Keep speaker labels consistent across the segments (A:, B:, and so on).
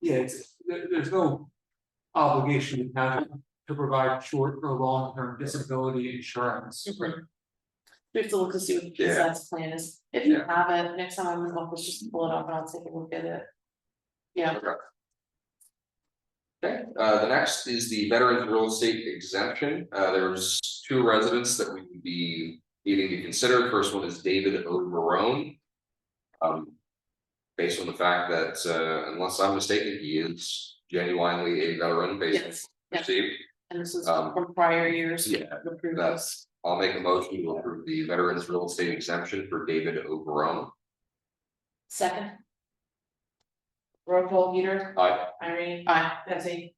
A: yeah, it's, there, there's no obligation to have to provide short or long-term disability insurance.
B: Mm-hmm.
C: Mhm. We have to look to see what the
A: Yeah.
C: PSAT's plan is, if you
A: Yeah.
C: have it, next time I'm in the office, just pull it up and I'll take a look at it. Yeah,
B: Okay. Okay, uh, the next is the veterans real estate exemption, uh, there's two residents that we would be needing to consider, first one is David O. Marone. Um, based on the fact that, uh, unless I'm mistaken, he is genuinely a veteran based on
C: yes,
B: what
C: yeah.
B: I've received.
C: and this is
B: Um,
C: from prior years.
B: yeah,
C: of approvals.
B: That's, I'll make a motion to approve the veterans real estate exemption for David O. Marone,
C: Second. Roll call, Peter,
B: Aye.
C: Irene, aye, Betsy,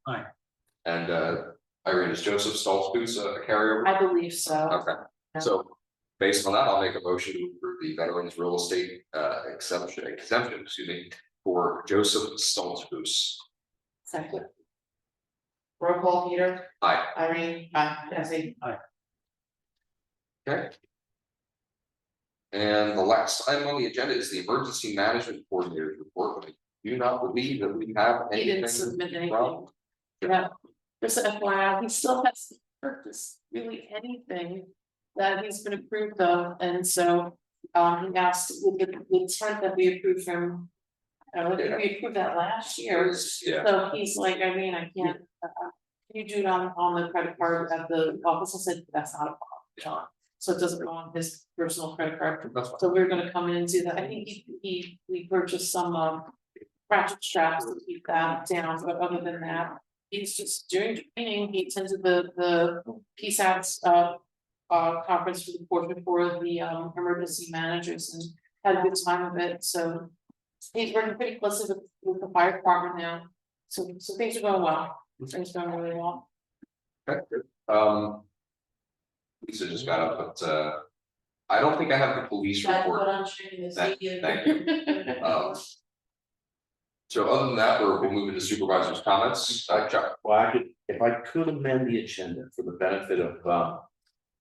B: and, uh, Irene is Joseph Stolzfus, a carrier.
C: I believe so,
B: Okay,
C: Yeah.
B: so based on that, I'll make a motion to approve the veterans real estate uh exemption, exemption, excuse me, for Joseph Stoltzfus.
C: second. Roll call, Peter,
B: Aye,
C: Irene, aye, Betsy,
B: okay. And the last item on the agenda is the emergency management coordinator's report. I Do not believe that we have
C: he
B: anything.
C: didn't submit anything.
B: from-
C: Yeah, just a FYI, he still hasn't purchased really anything that he's been approved of, and so. Um, he asked with the, the tent that we approved from. I don't think we approved that last year,
B: Yeah,
C: so he's like, I mean, I can't. uh, uh, You do it on, on the credit card at the office, I said, that's not a problem, John, so it doesn't go on his personal credit card.
B: that's fine.
C: So we're gonna come in and do that, I think he, he, we purchased some, um, ratchet straps to keep that down, but other than that. He's just doing training, he attended the, the PSATs, uh, uh, conference for the portrait for the, um, emergency managers and had a good time of it, so. He's working pretty closely with, with the fire department now, so, so things are going well, things are going really well.
B: Okay, good. Um. Lisa just got up, but uh, I don't think I have the police
C: That's what
B: report.
C: I'm showing this
B: Thank-
C: video.
B: thank Um, So other than that, we're we're moving to supervisors' comments, uh, Chuck,
D: Well, I could, if I could amend the agenda for the benefit of uh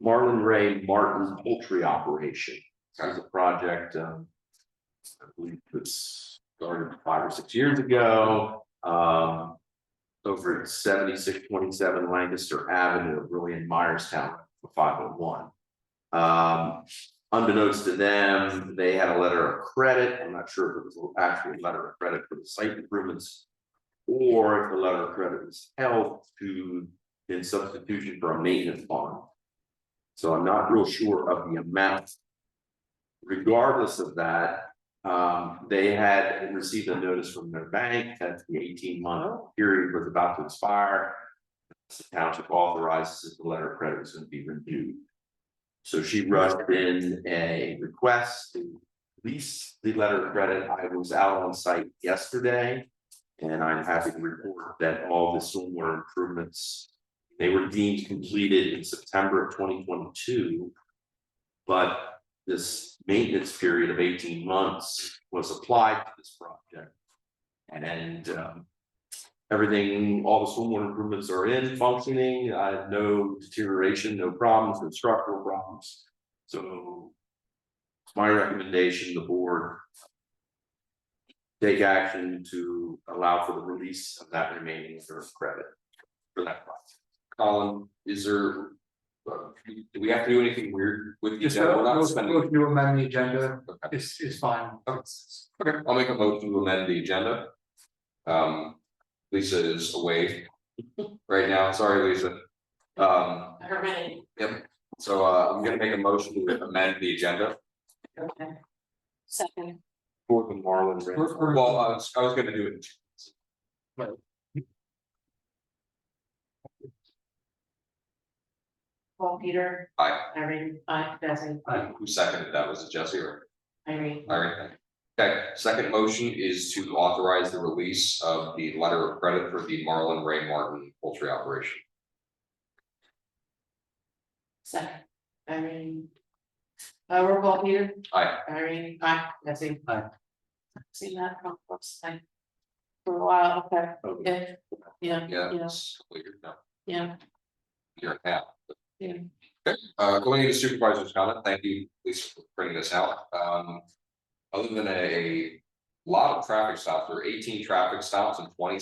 D: Marlon Ray Martin Poultry Operation. As a project, um. I believe it's started five or six years ago, um. Over at seventy six twenty seven Lancaster Avenue, really in Myerstown, five oh one. Um, unbeknownst to them, they had a letter of credit, I'm not sure if it was an actual letter of credit for the site improvements. Or if the letter of credit was held to in substitution for a maintenance bond. So I'm not real sure of the amount. Regardless of that, um, they had received a notice from their bank that the eighteen month period was about to expire. The township authorizes that the letter of credit was gonna be renewed. So she rushed in a request to lease the letter of credit. I was out on site yesterday. And I'm happy to report that all the stormwater improvements, they were deemed completed in September of twenty twenty-two. But this maintenance period of eighteen months was applied to this project. And um, everything, all the stormwater improvements are in functioning, uh, no deterioration, no problems, no structural problems. So it's my recommendation, the board take action to allow for the release of that remaining reserve credit for that project.
B: Colin, Um, is there? uh, Do we have to do anything weird with the
A: Just
B: agenda? We're not
A: a
B: spending.
A: motion to amend the agenda
B: Okay.
A: is, is fine.
B: Okay, I'll make a motion to amend the agenda. Um, Lisa is away right now, sorry, Lisa. Um,
C: Her name,
B: so uh, I'm gonna make a motion to amend the agenda.
C: okay. Second.
D: For the Marlin Ray.
A: We're- we're-
B: Well, I was, I was gonna do it.
C: Paul Peter.
B: Aye.
C: Irene, aye, Betsy,
B: Who seconded that? Was it Jesse or
C: Irene,
B: Larry? Okay, second motion is to authorize the release of the letter of credit for the Marlin Ray Martin poultry operation.
C: second, Irene. Uh, roll call, Peter.
B: Aye.
C: Irene, aye, Betsy.
A: Aye.
C: Seen that from first time. For a while, okay, yeah, yeah,
B: Yeah,
C: yeah,
B: it's clear now.
C: yeah,
B: You're half.
C: yeah.
B: Uh, going into supervisor's comment, thank you, Lisa, for bringing this out, um. Other than a lot of traffic stops, there are eighteen traffic stops and twenty